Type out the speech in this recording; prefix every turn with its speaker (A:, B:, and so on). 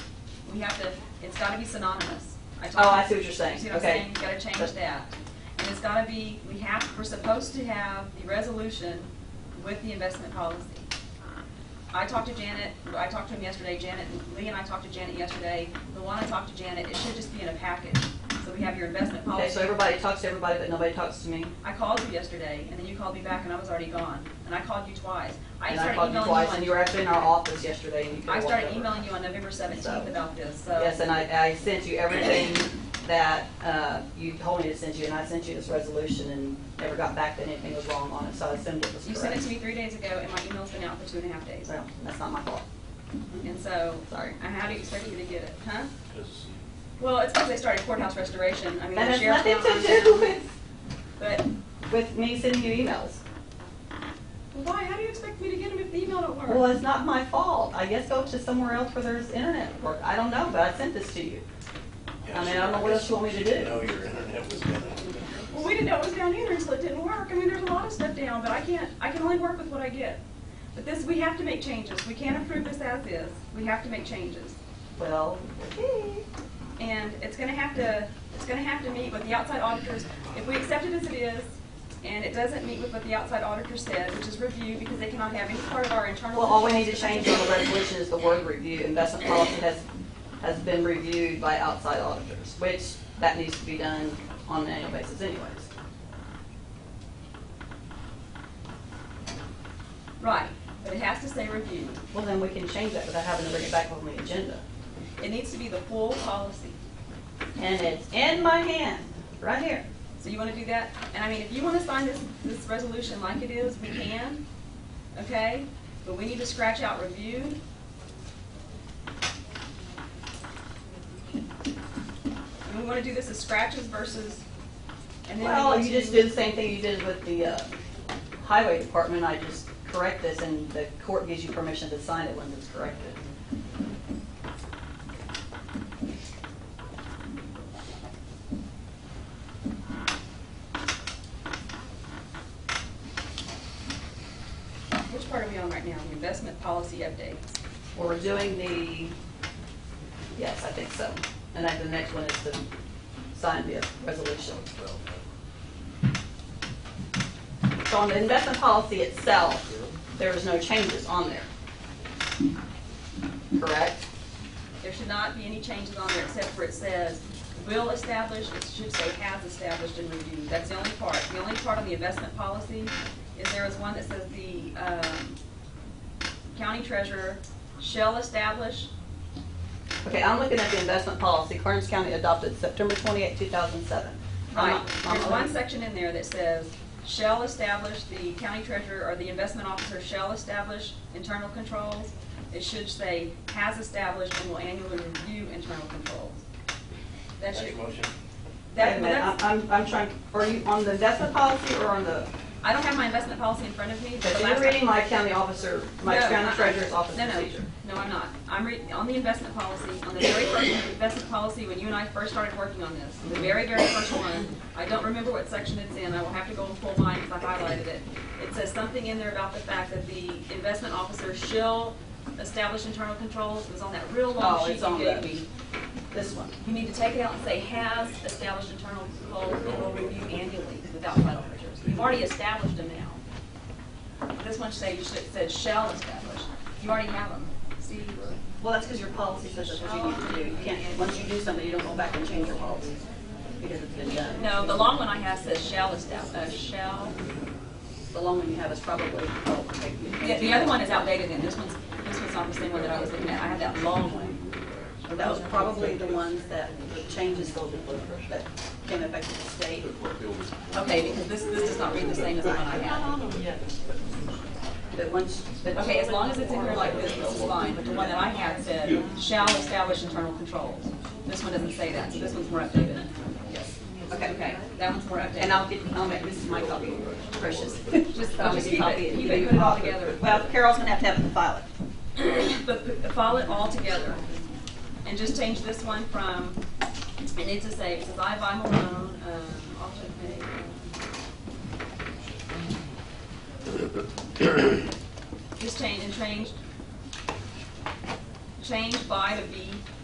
A: we have to, it's gotta be synonymous.
B: Oh, I
A: told-
B: see what you're saying.
A: You see what I'm
B: Okay.
A: saying? You gotta change that. And it's gotta be, we have, we're supposed to have the resolution with the investment policy. I talked to Janet, I talked to him yesterday, Janet, Lee and I talked to Janet yesterday. The one I talked to Janet, it should just be in a package. So we have your investment policy.
B: Okay, so everybody talks to everybody, but nobody talks to me.
A: I called you yesterday, and then you called me back, and I was already gone. And I called you twice. I
B: And I
A: started
B: called you
A: emailing
B: twice,
A: on-
B: and you were actually in our office yesterday, and
A: I
B: you could've walked
A: started
B: over.
A: emailing you on November
B: So-
A: seventeenth about this, so.
B: Yes, and I, I sent you everything that, uh, you told me to send you, and I sent you this resolution and never got back that anything was wrong on it, so I assumed it was
A: You
B: correct.
A: sent it to me three days ago, and my email's been out for two and a half days.
B: Well, that's not my fault.
A: And so,
B: Sorry.
A: and how do you expect me to get it, huh?
C: Because
A: Well, it's because they started courthouse restoration. I mean,
B: That
A: the
B: has
A: sheriff's
B: nothing
A: down on
B: to
A: them.
B: do with,
A: But,
B: with me sending you emails.
A: why, how do you expect me to get them if the email don't work?
B: Well, it's not my fault. I guess go to somewhere else where there's internet work. I don't know, but I sent this to you. I mean, I don't know what else you want me to
C: she didn't
B: do.
C: know your internet was gonna.
A: Well, we didn't know it was down either, so it didn't work. I mean, there's a lot of stuff down, but I can't, I can only work with what I get. But this, we have to make changes. We can't approve this as is. We have to make changes.
B: Well,
A: And it's gonna have to, it's gonna have to meet with the outside auditors. If we accept it as it is, and it doesn't meet with what the outside auditor said, which is review, because they cannot have any part of our internal.
B: well, all we need to change on the resolution is the word review. Investment policy has, has been reviewed by outside auditors, which that needs to be done on an annual basis anyways.
A: Right, but it has to say review.
B: Well, then we can change that without having to bring it back on the agenda.
A: It needs to be the full policy.
B: And it's in my hand, right here.
A: So you wanna do that? And I mean, if you wanna sign this, this resolution like it is, we can, okay? But we need to scratch out review. And we wanna do this as scratches versus, and then we
B: Well,
A: want
B: you
A: to-
B: just do the same thing you did with the uh, highway department, I just correct this, and the court gives you permission to sign it when it's corrected.
A: Which part are we on right now? The investment policy update.
B: We're doing the, yes, I think so. And then the next one is to sign the resolution. So on the investment policy itself, there is no changes on there. Correct?
A: There should not be any changes on there except for it says will establish, it should say has established and reviewed. That's the only part. The only part on the investment policy is there is one that says the um, county treasurer shall establish.
B: Okay, I'm looking at the investment policy Clarence County adopted September 28, 2007. I'm
A: Right,
B: not- I'm
A: there's one
B: looking-
A: section in there that says shall establish, the county treasurer or the investment officer shall establish internal controls. It should say has established and will annually review internal controls. That
C: Make
A: should,
C: a motion.
B: Wait a
A: that,
B: minute,
A: that's-
B: I'm, I'm- I'm trying, are you on the investment policy or on the,
A: I don't have my investment policy in front of me, but
B: but
A: the
B: you're
A: last.
B: reading my county officer, my
A: No,
B: county
A: I-
B: treasurer's office
A: No, no,
B: procedure?
A: no, I'm not. I'm reading, on the investment policy, on the very first investment policy, when you and I first started working on this, the very, very first one, I don't remember what section it's in, I will have to go and pull mine because I highlighted it. It says something in there about the fact that the investment officer shall establish internal controls, it was on that real long
B: Oh,
A: sheet
B: it's on
A: you gave
B: the,
A: me.
B: this one.
A: You need to take it out and say has established internal controls and will review annually without final measures. You've already established them now. This one say, you should, said shall establish. You already have them. See?
B: Well, that's because your policy says that's what you need to do. You can't, once you do something, you don't go back and change your policy because it's been done.
A: No, the long one I have says shall establish, uh, shall.
B: The long one you have is probably, oh, okay.
A: The, the other one is outdated then. This one's, this one's not the same one that I was looking at. I had that long one.
B: That was probably the ones that the changes go to, that came effective state.
A: Okay, because this, this does not read the same as the one I had.
B: But once, but.
A: Okay, as long as it's in here like this, this is fine, but the one that I had said shall establish internal controls. This one doesn't say that, so this one's more updated.
B: Yes. Okay, okay.
A: That one's more updated.
B: And I'll get, I'll make, this is my copy, precious.
A: Just-
B: I'll
A: just
B: make
A: keep
B: a
A: it,
B: copy and
A: keep
B: give
A: it,
B: you a
A: put it all
B: copy.
A: together.
B: Well, Carol's gonna have to have it in the file.
A: But put- file it all together and just change this one from, it needs to say, it says I, buy Malone, um, also pay. Just change, and change, change by to be